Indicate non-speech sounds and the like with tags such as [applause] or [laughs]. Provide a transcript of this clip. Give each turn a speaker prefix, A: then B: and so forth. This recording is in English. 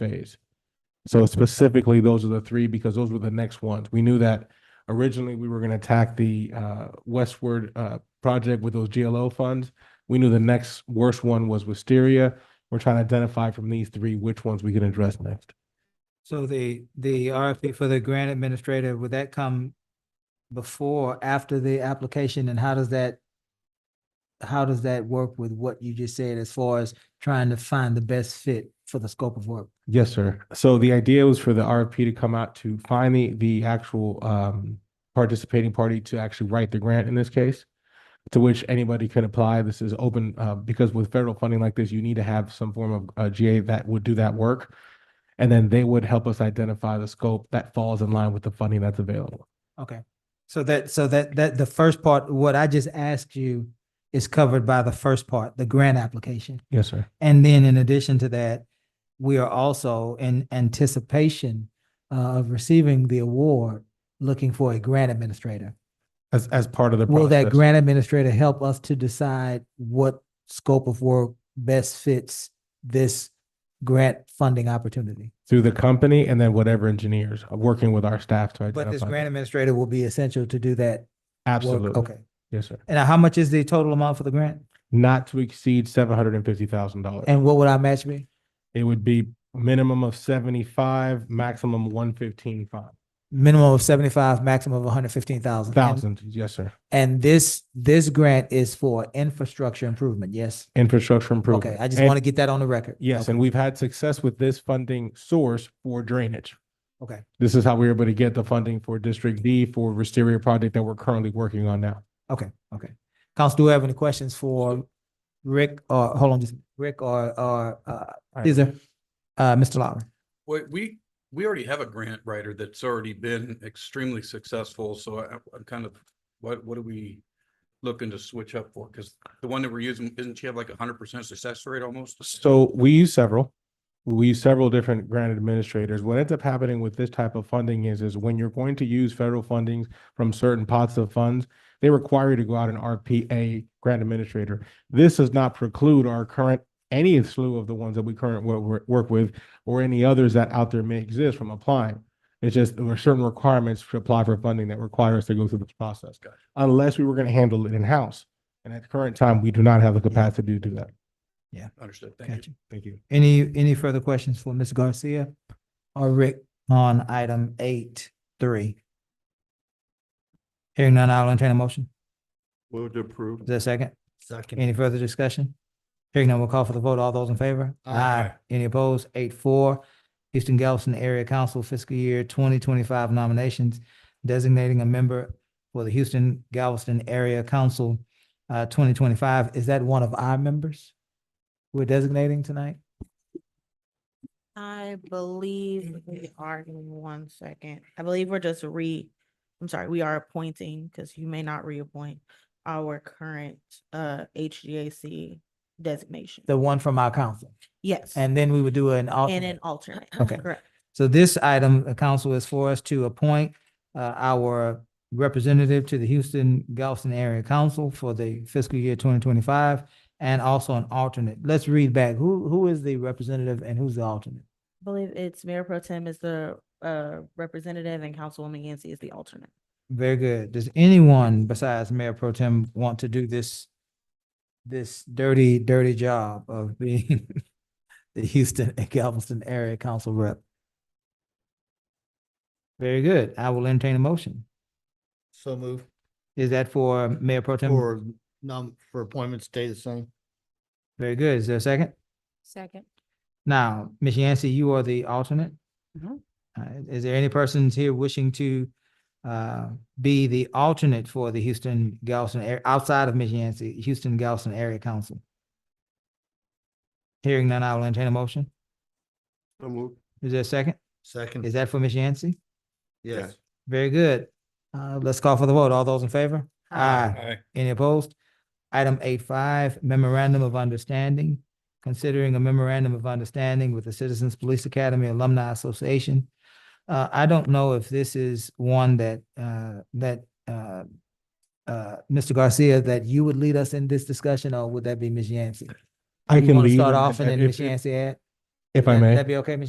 A: phase. So specifically, those are the three because those were the next ones. We knew that originally we were going to attack the uh, westward uh, project with those GLO funds. We knew the next worst one was Wisteria. We're trying to identify from these three which ones we can address next.
B: So the, the RFP for the grant administrator, would that come before, after the application, and how does that, how does that work with what you just said as far as trying to find the best fit for the scope of work?
A: Yes, sir. So the idea was for the RFP to come out to find the, the actual um, participating party to actually write the grant in this case, to which anybody can apply. This is open, uh, because with federal funding like this, you need to have some form of uh, GA that would do that work. And then they would help us identify the scope that falls in line with the funding that's available.
B: Okay, so that, so that, that, the first part, what I just asked you is covered by the first part, the grant application.
A: Yes, sir.
B: And then in addition to that, we are also in anticipation uh, of receiving the award, looking for a grant administrator.
A: As, as part of the
B: Will that
A: process.
B: grant administrator help us to decide what scope of work best fits this grant funding opportunity?
A: Through the company and then whatever engineers, uh, working with our staff to identify.
B: But this
A: that.
B: grant administrator will be essential to do that
A: Absolutely.
B: work. Okay.
A: Yes, sir.
B: And how much is the total amount for the grant?
A: Not to exceed seven hundred and fifty thousand dollars.
B: And what would our match be?
A: It would be minimum of seventy-five, maximum one fifteen five
B: Minimum of seventy-five, maximum of one hundred fifteen thousand.
A: thousand. Yes, sir.
B: And this, this grant is for infrastructure improvement, yes?
A: Infrastructure improvement.
B: Okay, I just
A: And-
B: want to get that on the record.
A: Yes,
B: Okay.
A: and we've had success with this funding source for drainage.
B: Okay.
A: This is how we were able to get the funding for District D for Wisteria project that we're currently working on now.
B: Okay, okay. Council, do we have any questions for Rick or, hold on, just Rick or, or, uh,
A: right.
B: Caesar? Uh, Mr. Lowry?
C: Well, we, we already have a grant writer that's already been extremely successful, so I, I'm kind of, what, what are we looking to switch up for? Because the one that we're using, isn't she have like a hundred percent success rate almost?
A: So we use several, we use several different grant administrators. What ends up happening with this type of funding is, is when you're going to use federal fundings from certain pots of funds, they require you to go out and RPA grant administrator. This does not preclude our current, any slew of the ones that we current wo- wo- work with or any others that out there may exist from applying. It's just there are certain requirements to apply for funding that require us to go through this process.
C: Gotcha.
A: Unless we were going to handle it in-house. And at the current time, we do not have the capacity to do that.
C: Understood, thank you.
B: Gotcha.
A: Thank you.
B: Any, any further questions for Ms. Garcia or Rick on item eight, three? Hearing none, I'll entertain a motion.
D: Move to approve.
B: Is there a second?
D: Second.
B: Any further discussion? Hearing none, we'll call for the vote. All those in favor? Aye. Any opposed? Eight four. Houston Galveston Area Council Fiscal Year twenty twenty-five nominations, designating a member for the Houston Galveston Area Council uh twenty twenty-five. Is that one of our members we're designating tonight?
E: I believe we are, give me one second. I believe we're just re, I'm sorry, we are appointing, because you may not reappoint our current uh HGAC designation.
B: The one from our council.
E: Yes, and
B: And then we would do an alternate.
E: an alternate.
B: Okay.
E: [laughs] Correct.
B: So this item, the council is for us to appoint uh our representative to the Houston Galveston Area Council for the fiscal year twenty twenty-five and also an alternate. Let's read back. Who who is the representative and who's the alternate?
E: I believe it's Mayor Pro Tem is the uh representative and Councilwoman Yancey is the alternate.
B: Very good. Does anyone besides Mayor Pro Tem want to do this this dirty, dirty job of [laughs] being the Houston and Galveston Area Council rep? Very good. I will entertain a motion.
D: So move
B: Is that for Mayor Pro Tem?
D: for num, for appointments stay the same.
B: Very good. Is there a second?
E: Second.
B: Now, Ms. Yancey, you are the alternate.
E: Mhm.
B: Uh, Is there any persons here wishing to uh, be the alternate for the Houston Galveston, area outside of Ms. Yancey, Houston Galveston Area Council? Hearing none, I will entertain a motion.
D: So move.
B: Is there a second? Is
D: Second,
B: that for Ms. Yancey?
D: yes.
B: Very good. Uh, Let's call for the vote. All those in favor? Aye.
C: Aye.
B: Any opposed? Item eight five, memorandum of understanding, considering a memorandum of understanding with the Citizens Police Academy Alumni Association. Uh, I don't know if this is one that, uh, that, uh, uh, Mr. Garcia, that you would lead us in this discussion, or would that be Ms. Yancey?
A: I
B: You
A: can
B: want to
A: lead.
B: Start
A: and-
B: off and
A: and
B: then
A: if-
B: Ms. Yancey add?
A: If I
B: That-
A: may.
B: That be okay, Ms.